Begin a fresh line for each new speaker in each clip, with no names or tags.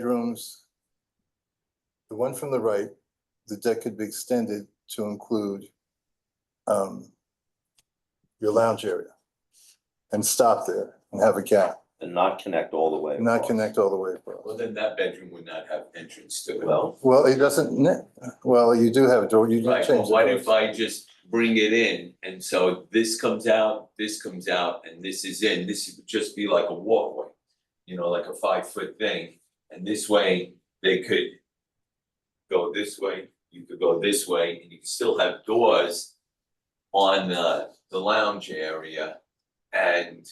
bedrooms, the one from the right, the deck could be extended to include um, your lounge area and stop there and have a gap,
and not connect all the way.
not
across.
connect all the way
Well,
across.
then that bedroom would not have entrance to it.
Well,
Well, it doesn't, ne- well, you do have a door, you do
Right,
change.
but
the
what
doors.
if I just bring it in and so this comes out, this comes out, and this is in, this would just be like a walkway. You know, like a five foot thing, and this way they could. Go this way, you could go this way, and you could still have doors. On the the lounge area and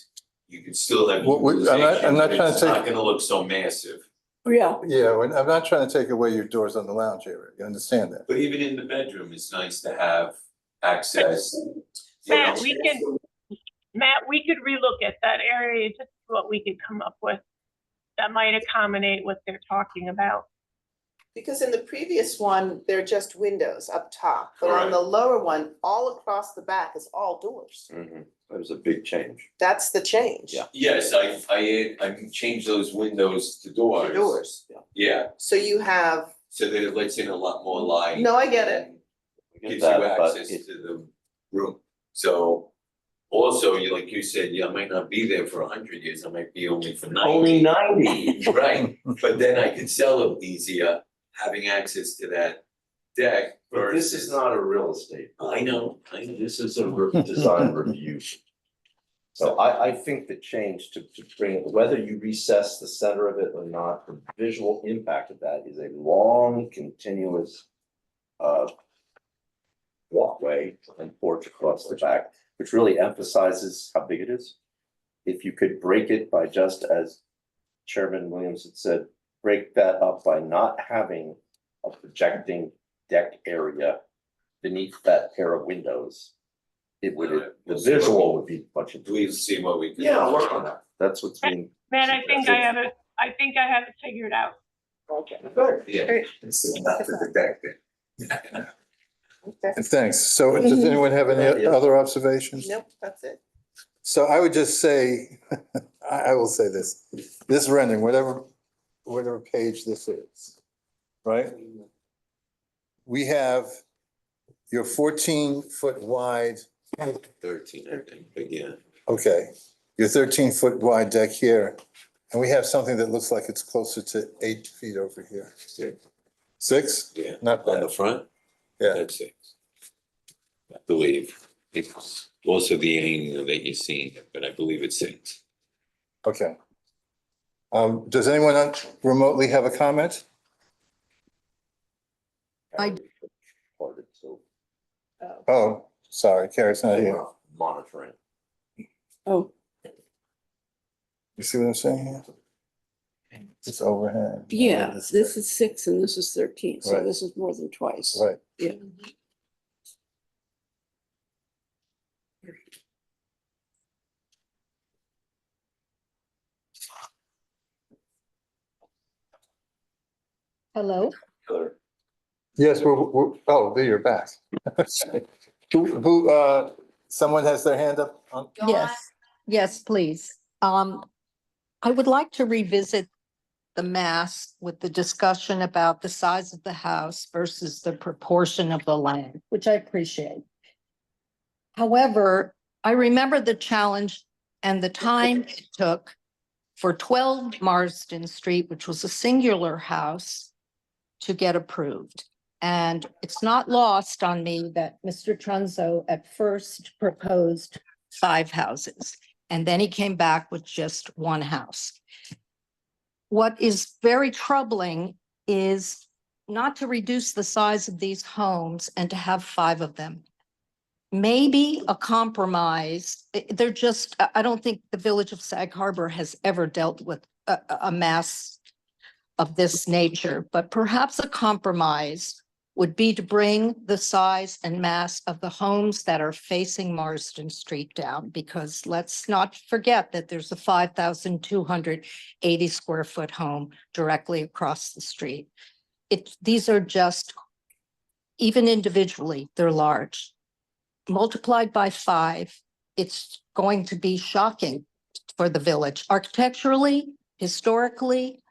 you could still have.
Well, we- I'm not- I'm not trying
utilization,
to
but It's not
take-
gonna look so massive,
Yeah,
Yeah, when- I'm not trying to take away your doors on the lounge area, you understand that?
but even in the bedroom, it's nice to have access. you
Matt,
know.
we can, Matt, we could relook at that area, just what we could come up with that might accommodate what they're talking about.
Because in the previous one, they're just windows up top, but on the lower one, all across the back is all doors.
mhm, that was a big change.
That's the change.
Yeah.
Yes, I I I changed those windows to
The
doors.
Doors. yeah.
Yeah,
So you have,
so that it lets in a lot more light.
No, I get it.
and
I get
Gives
that,
you
but
access
it-
to the room, so. Also, you like you said, yeah, I might not be there for a hundred years, I might be only for ninety.
Only ninety.
Right, but then I could sell them easier, having access to that deck
But
versus.
this is not a real estate,
I know, I know.
this is a re- design review. So I, I think the change to, to bring, it, whether you recess the center of it or not, the visual impact of that is a long continuous uh walkway and porch across the back, which really emphasizes how big it is. If you could break it by just as Chairman Williams had said, break that up by not having a projecting deck area beneath that pair of windows. It would,
Alright,
the
we'll see what
visual would be much improved.
We've seen what we can.
Yeah, work on that. That's what's being.
Matt, I think I have it, I think I have it figured out.
Yeah.
Great.
It's not to the deck then.
okay,
Thanks. So does anyone have any
Yeah.
other observations?
nope, that's it.
So I would just say, I, I will say this, this rendering, whatever, whatever page this is, right? We have your fourteen foot wide,
Thirteen, I think, but yeah.
okay, your thirteen foot wide deck here. And we have something that looks like it's closer to eight feet over here. Six?
Yeah.
Not
On the
bad,
front?
yeah.
That's it. I believe. It's also the angle that you're seeing, but I believe it's six.
Okay. Um, does anyone on- remotely have a comment?
I-
Recorded, so
Oh,
Oh, sorry, Carrie's not
we're
here.
not Monitoring.
oh,
You see what I'm saying here? It's overhang.
yeah, this is six and this is thirteen, so
Right.
this is more than twice.
Right.
Yeah.
Hello,
Yes, we're, we're, oh, there you're back. Who, who, uh, someone has their hand up on,
yes, yes, please. Um, I would like to revisit the mass with the discussion about the size of the house versus the proportion of the land, which I appreciate. However, I remember the challenge and the time it took for twelve Marsden Street, which was a singular house, to get approved. And it's not lost on me that Mr. Trunzo at first proposed five houses. And then he came back with just one house. What is very troubling is not to reduce the size of these homes and to have five of them. Maybe a compromise, eh, they're just, I, I don't think the village of Sag Harbor has ever dealt with a, a- a mass of this nature, but perhaps a compromise would be to bring the size and mass of the homes that are facing Marsden Street down, because let's not forget that there's a five thousand two hundred eighty square foot home directly across the street. It, these are just, even individually, they're large. Multiplied by five, it's going to be shocking for the village architecturally, historically,